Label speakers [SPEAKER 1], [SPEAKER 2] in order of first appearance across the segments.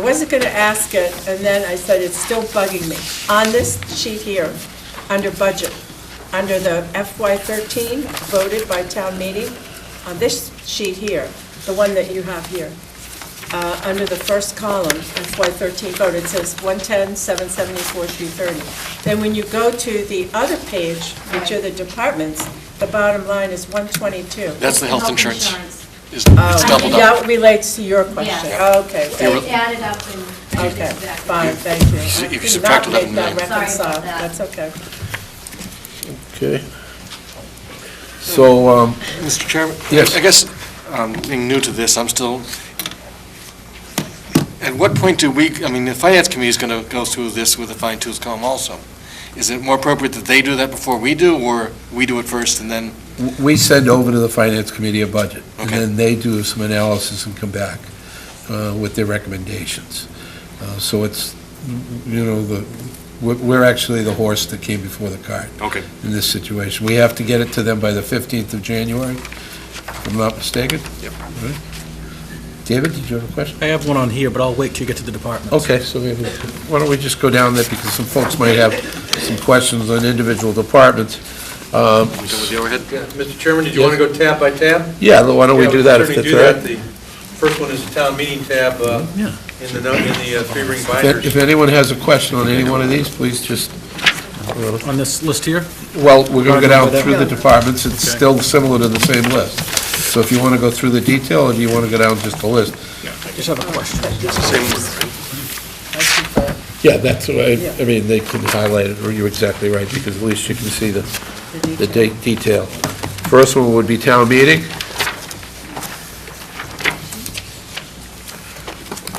[SPEAKER 1] wasn't going to ask it, and then I said, it's still bugging me. On this sheet here, under budget, under the FY13 voted by town meeting, on this sheet here, the one that you have here, uh, under the first column, FY13 vote, it says 110, 774, 330. Then when you go to the other page, which are the departments, the bottom line is 122.
[SPEAKER 2] That's the health insurance. Is It's
[SPEAKER 1] Uh,
[SPEAKER 2] doubled up.
[SPEAKER 1] That relates to your question.
[SPEAKER 2] Yeah.
[SPEAKER 1] Okay,
[SPEAKER 2] They were-
[SPEAKER 1] thank-
[SPEAKER 2] You're-
[SPEAKER 3] It added up and. and
[SPEAKER 1] okay,
[SPEAKER 3] exactly.
[SPEAKER 1] fine, thank you.
[SPEAKER 2] If you
[SPEAKER 1] I did
[SPEAKER 2] subtract
[SPEAKER 1] not make
[SPEAKER 2] 11
[SPEAKER 1] that
[SPEAKER 2] million.
[SPEAKER 3] Sorry about
[SPEAKER 1] reconcile.
[SPEAKER 3] that.
[SPEAKER 1] That's okay.
[SPEAKER 4] Okay. So, um,
[SPEAKER 2] Mr. Chairman?
[SPEAKER 4] Yes.
[SPEAKER 2] I guess, um, being new to this, I'm still, at what point do we, I mean, the Finance Committee is going to go through this with a fine tooth comb also. Is it more appropriate that they do that before we do, or we do it first and then,
[SPEAKER 4] w- we send over to the Finance Committee a budget, and
[SPEAKER 2] Okay.
[SPEAKER 4] then they do some analysis and come back uh, with their recommendations. Uh, So it's, you know, the, we're- we're actually the horse that came before the cart
[SPEAKER 2] Okay.
[SPEAKER 4] in this situation. We have to get it to them by the 15th of January, if I'm not mistaken?
[SPEAKER 2] Yep.
[SPEAKER 4] All right. David, did you have a question?
[SPEAKER 5] I have one on here, but I'll wait till you get to the department.
[SPEAKER 4] Okay, so we- why don't we just go down there, because some folks might have some questions on individual departments.
[SPEAKER 2] we
[SPEAKER 4] Um,
[SPEAKER 2] go with the overhead?
[SPEAKER 6] Mr. Chairman, did you want to go tab by tab?
[SPEAKER 4] Yeah, why don't we do that if
[SPEAKER 6] Yeah, we
[SPEAKER 4] that's
[SPEAKER 6] can
[SPEAKER 4] all
[SPEAKER 6] certainly
[SPEAKER 4] right?
[SPEAKER 6] do that. The first one is the town meeting tab uh,
[SPEAKER 5] Yeah.
[SPEAKER 6] in the, no- in the uh, three-ring
[SPEAKER 4] If if
[SPEAKER 6] binders.
[SPEAKER 4] anyone has a question on any one of these, please just,
[SPEAKER 5] On this list here?
[SPEAKER 4] well, we're going to go down
[SPEAKER 5] Right,
[SPEAKER 4] through the
[SPEAKER 5] yeah.
[SPEAKER 4] departments, it's
[SPEAKER 5] Okay.
[SPEAKER 4] still similar to the same list. So if you want to go through the detail, or do you want to go down just the list?
[SPEAKER 5] I just have a question.
[SPEAKER 4] Yeah, that's what I, I mean, they can highlight it, or you're exactly right, because at least you can see the, the de- detail. First one would be town meeting.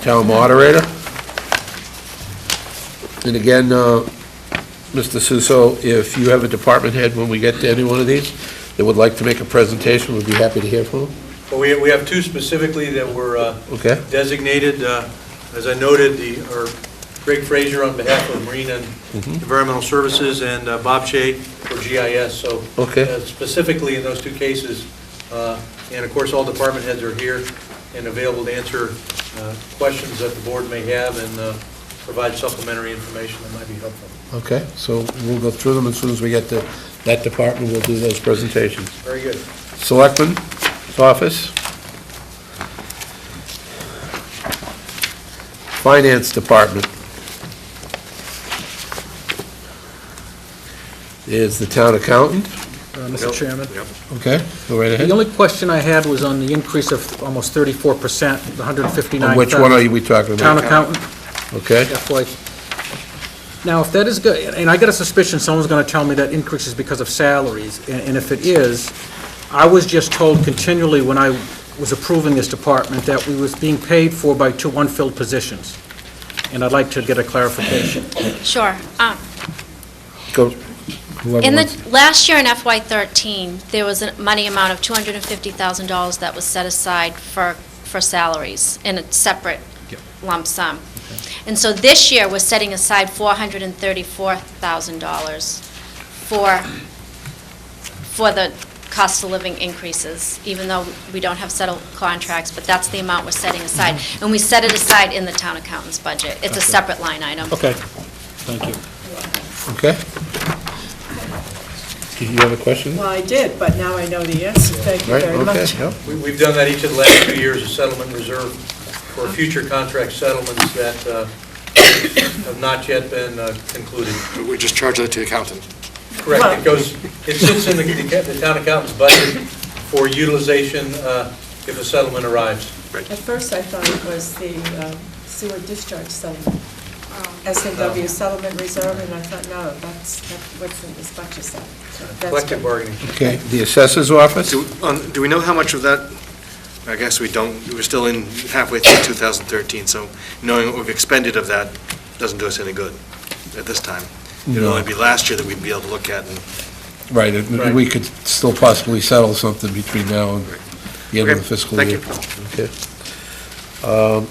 [SPEAKER 4] Town moderator. And again, uh, Mr. Suso, if you have a department head when we get to any one of these that would like to make a presentation, we'd be happy to hear from them,
[SPEAKER 6] Well, we, we have two specifically that were uh,
[SPEAKER 4] okay?
[SPEAKER 6] designated, uh, as I noted, the, or Greg Frazier on behalf of Marine and Environmental Services and uh, Bob Shea for GIS, so.
[SPEAKER 4] Okay.
[SPEAKER 6] uh, Specifically in those two cases, uh, and of course, all department heads are here and available to answer uh, questions that the board may have and uh, provide supplementary information that might be helpful.
[SPEAKER 4] Okay, so we'll go through them as soon as we get to that department, we'll do those presentations.
[SPEAKER 6] Very good.
[SPEAKER 4] Selectman's Office. Finance Department. Is the town accountant.
[SPEAKER 5] Uh, Mr. Chairman?
[SPEAKER 4] Okay, go right
[SPEAKER 5] The only question I had was on the increase of almost 34%, the 159,000.
[SPEAKER 4] On which one are we talking
[SPEAKER 5] Town
[SPEAKER 4] about?
[SPEAKER 5] accountant,
[SPEAKER 4] Okay,
[SPEAKER 5] FY. Now, if that is good, and I got a suspicion someone's going to tell me that increase is because of salaries, and and if it is, I was just told continually when I was approving this department that we was being paid for by two unfilled positions, and I'd like to get a clarification.
[SPEAKER 7] Sure. Um,
[SPEAKER 4] go. whoever
[SPEAKER 7] In
[SPEAKER 4] wants.
[SPEAKER 7] the, last year in FY13, there was a money amount of $250,000 that was set aside for, for salaries in a separate lump sum. And so this year, we're setting aside $434,000 for, for the cost of living increases, even though we don't have settled contracts, but that's the amount we're setting aside. And we set it aside in the town accountant's budget. It's a separate line item.
[SPEAKER 5] Okay, thank you.
[SPEAKER 4] Okay. Do you have a question?
[SPEAKER 1] Well, I did, but now I know the answer. Thank you
[SPEAKER 4] Right,
[SPEAKER 1] very
[SPEAKER 4] okay,
[SPEAKER 1] much.
[SPEAKER 4] yeah.
[SPEAKER 6] We- We've done that each of the last two years, a settlement reserve for future contract settlements that uh, have not yet been uh, concluded.
[SPEAKER 2] We just charge that to the accountant.
[SPEAKER 6] Correct, it goes, it sits in the- the town accountant's budget for utilization uh, if a settlement arrives.
[SPEAKER 1] At first, I thought it was the um, sewer discharge settlement,
[SPEAKER 3] Oh.
[SPEAKER 1] S&W settlement reserve, and I thought, no, that's that's what's in this budget set. So that's
[SPEAKER 6] Collective
[SPEAKER 1] good.
[SPEAKER 6] bargaining.
[SPEAKER 4] Okay, the Assessor's Office?
[SPEAKER 2] Do, on- do we know how much of that, I guess we don't, we're still in halfway through 2013, so knowing what we've expended of that doesn't do us any good at this time. It'd
[SPEAKER 4] No.
[SPEAKER 2] only be last year that we'd be able to look at, and
[SPEAKER 4] Right, and we could still possibly settle something between now and the end of the
[SPEAKER 2] Okay,
[SPEAKER 4] fiscal
[SPEAKER 2] thank
[SPEAKER 4] year.
[SPEAKER 2] you.
[SPEAKER 4] Okay. Um,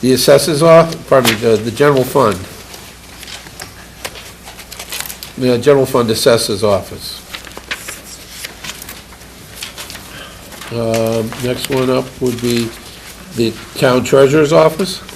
[SPEAKER 4] The assessors are, pardon me, the the general fund. The uh, general fund assessors office. Um, Next one up would be the town treasurer's office.